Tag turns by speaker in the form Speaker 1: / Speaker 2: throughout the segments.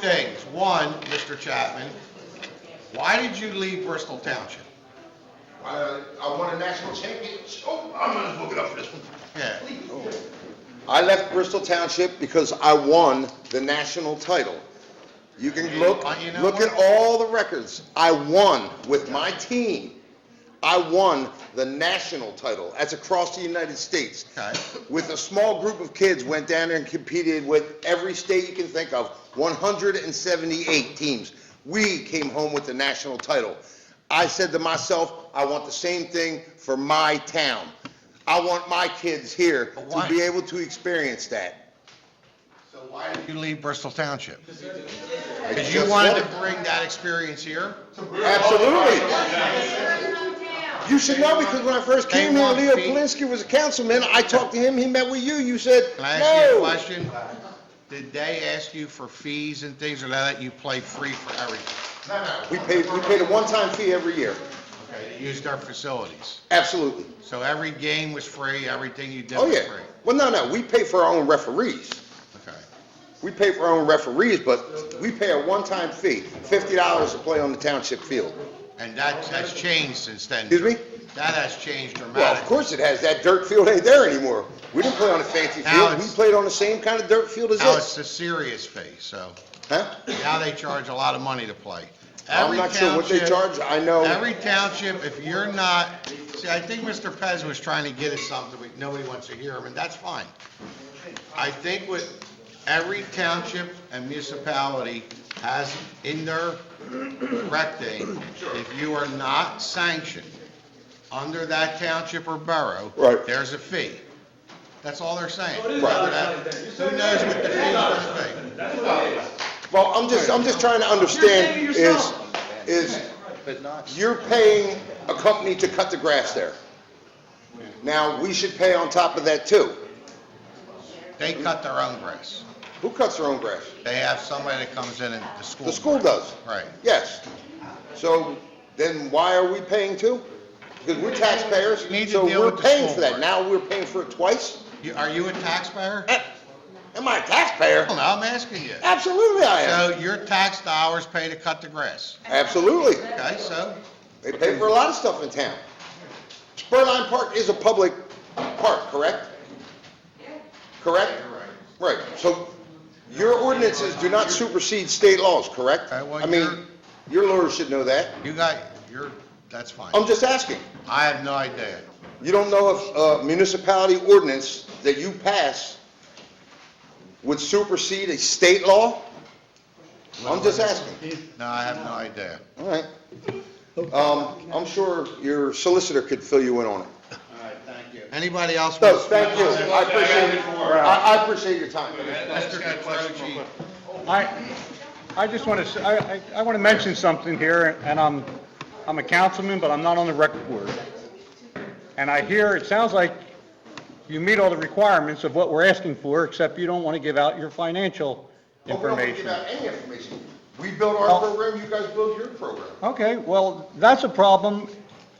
Speaker 1: things. One, Mr. Chapman, why did you leave Bristol Township?
Speaker 2: I, uh, I won a national championship. Oh, I'm gonna look it up for this one.
Speaker 1: Yeah.
Speaker 2: I left Bristol Township because I won the national title. You can look,
Speaker 1: Uh, you know
Speaker 2: look at
Speaker 1: what?
Speaker 2: all the records. I won with my team. I won the national title. That's across the United States.
Speaker 1: Okay.
Speaker 2: With a small group of kids, went down there and competed with every state you can think of, 178 teams. We came home with the national title. I said to myself, I want the same thing for my town. I want my kids here
Speaker 1: But
Speaker 2: to
Speaker 1: why-
Speaker 2: be able to experience that.
Speaker 1: So why did you leave Bristol Township?
Speaker 2: I
Speaker 1: Because you
Speaker 2: just
Speaker 1: wanted
Speaker 2: want
Speaker 1: to bring that experience here?
Speaker 2: it. Absolutely. You should know, because when I first
Speaker 1: They
Speaker 2: came here,
Speaker 1: want
Speaker 2: Leo
Speaker 1: me-
Speaker 2: Polinsky was a councilman, I talked to him, he met with you, you said,
Speaker 1: Can I ask you a
Speaker 2: no.
Speaker 1: question? Did they ask you for fees and things, or they let you play free for everything?
Speaker 2: We paid, we paid a one-time fee every year,
Speaker 1: They Used our facilities.
Speaker 2: absolutely.
Speaker 1: So every game was free, everything you did
Speaker 2: Oh,
Speaker 1: was
Speaker 2: yeah.
Speaker 1: free?
Speaker 2: Well, no, no, we pay for our own referees.
Speaker 1: Okay.
Speaker 2: We pay for our own referees, but we pay a one-time fee, fifty dollars to play on the township field.
Speaker 1: And that, that's changed since then?
Speaker 2: Excuse me?
Speaker 1: That has changed
Speaker 2: Well, of
Speaker 1: dramatically.
Speaker 2: course it has, that dirt field ain't there anymore. We didn't play on a fancy
Speaker 1: Now
Speaker 2: field, we
Speaker 1: it's-
Speaker 2: played on the same kind of dirt field as
Speaker 1: Now it's the
Speaker 2: this.
Speaker 1: serious fee, so
Speaker 2: Huh?
Speaker 1: now they charge a lot of money to play.
Speaker 2: I'm
Speaker 1: Every
Speaker 2: not sure what they
Speaker 1: township-
Speaker 2: charge, I know,
Speaker 1: Every township, if you're not, see, I think Mr. Pez was trying to get us something, we- nobody wants to hear him, and that's fine. I think with every township and municipality has in their rec thing, if you are not sanctioned under that township or borough.
Speaker 2: Right.
Speaker 1: There's a fee. That's all they're saying.
Speaker 2: Right.
Speaker 1: Who knows what the fee is gonna be?
Speaker 2: well, I'm just, I'm just trying to understand is, is you're paying a company to cut the grass there. Now, we should pay on top of that too.
Speaker 1: They cut their own grass.
Speaker 2: Who cuts their own grass?
Speaker 1: They have somebody that comes in and the school.
Speaker 2: The school does.
Speaker 1: Right.
Speaker 2: Yes. So then why are we paying too? Because we're taxpayers,
Speaker 1: You need to
Speaker 2: so
Speaker 1: deal
Speaker 2: we're
Speaker 1: with the
Speaker 2: paying
Speaker 1: school
Speaker 2: for that.
Speaker 1: board.
Speaker 2: Now we're paying for it twice?
Speaker 1: You- Are you a taxpayer?
Speaker 2: Eh, Am I a taxpayer?
Speaker 1: Well, no, I'm asking you.
Speaker 2: Absolutely I am.
Speaker 1: So your tax dollars pay to cut the grass,
Speaker 2: Absolutely.
Speaker 1: okay, so,
Speaker 2: They pay for a lot of stuff in town. Spurline Park is a public park, correct? Correct? Right, so your ordinances do not supersede state laws, correct?
Speaker 1: Okay, well,
Speaker 2: I mean,
Speaker 1: you're-
Speaker 2: your lawyer should know that.
Speaker 1: you got, you're, that's fine.
Speaker 2: I'm just asking.
Speaker 1: I have no idea.
Speaker 2: You don't know if uh, municipality ordinance that you pass would supersede a state law? I'm just asking.
Speaker 1: No, I have no idea.
Speaker 2: All right. Um, I'm sure your solicitor could fill you in on it.
Speaker 1: Anybody else?
Speaker 2: So,
Speaker 1: want to
Speaker 2: thank you.
Speaker 1: speak on
Speaker 2: I appreciate, I I appreciate your time.
Speaker 1: that? Mr. Petroci,
Speaker 3: I, I just want to, I, I want to mention something here, and I'm, I'm a councilman, but I'm not on the record board. And I hear, it sounds like you meet all the requirements of what we're asking for, except you don't want to give out your financial
Speaker 2: Well, we don't have to give
Speaker 3: information.
Speaker 2: out any information. We build our
Speaker 3: Well-
Speaker 2: program, you guys build your program.
Speaker 3: Okay, well, that's a problem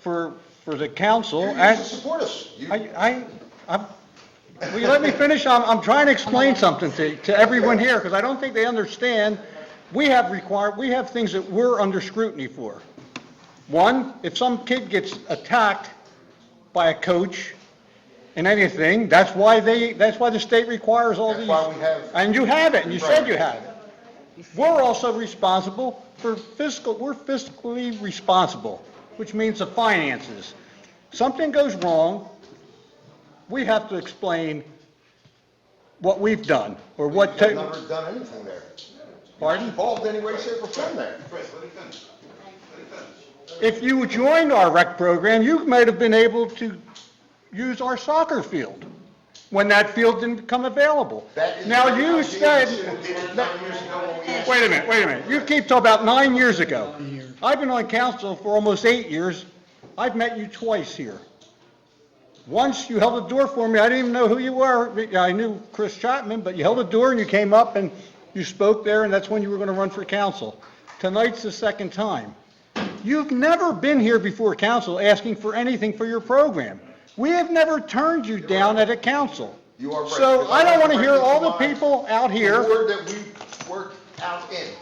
Speaker 3: for, for the council,
Speaker 2: You guys
Speaker 3: and
Speaker 2: support us. You-
Speaker 3: I, I, I'm, will you let me finish? I'm, I'm trying to explain something to, to everyone here, because I don't think they understand. We have required, we have things that we're under scrutiny for. One, if some kid gets attacked by a coach in anything, that's why they, that's why the state requires all
Speaker 2: That's
Speaker 3: these.
Speaker 2: why we have-
Speaker 3: And you have it, and you said
Speaker 2: Right.
Speaker 3: you have it. We're also responsible for fiscal, we're fiscally responsible, which means the finances. Something goes wrong, we have to explain what we've done, or what,
Speaker 2: You've
Speaker 3: ta-
Speaker 2: never done anything there.
Speaker 3: pardon?
Speaker 2: Involved in any way, shape, or form there.
Speaker 3: If you joined our rec program, you might have been able to use our soccer field when that field didn't become available.
Speaker 2: That is-
Speaker 3: Now, you said,
Speaker 2: Nine years ago when we asked-
Speaker 3: wait a minute, wait a minute, you keep talking about nine years ago. I've been on council for almost eight years, I've met you twice here. Once you held a door for me, I didn't even know who you were, I knew Chris Chapman, but you held a door and you came up and you spoke there, and that's when you were gonna run for council. Tonight's the second time. You've never been here before council asking for anything for your program. We have never turned you down at a council.
Speaker 2: You are right.
Speaker 3: So I don't want to hear all the people out
Speaker 2: The
Speaker 3: here,
Speaker 2: word that we work
Speaker 4: out in.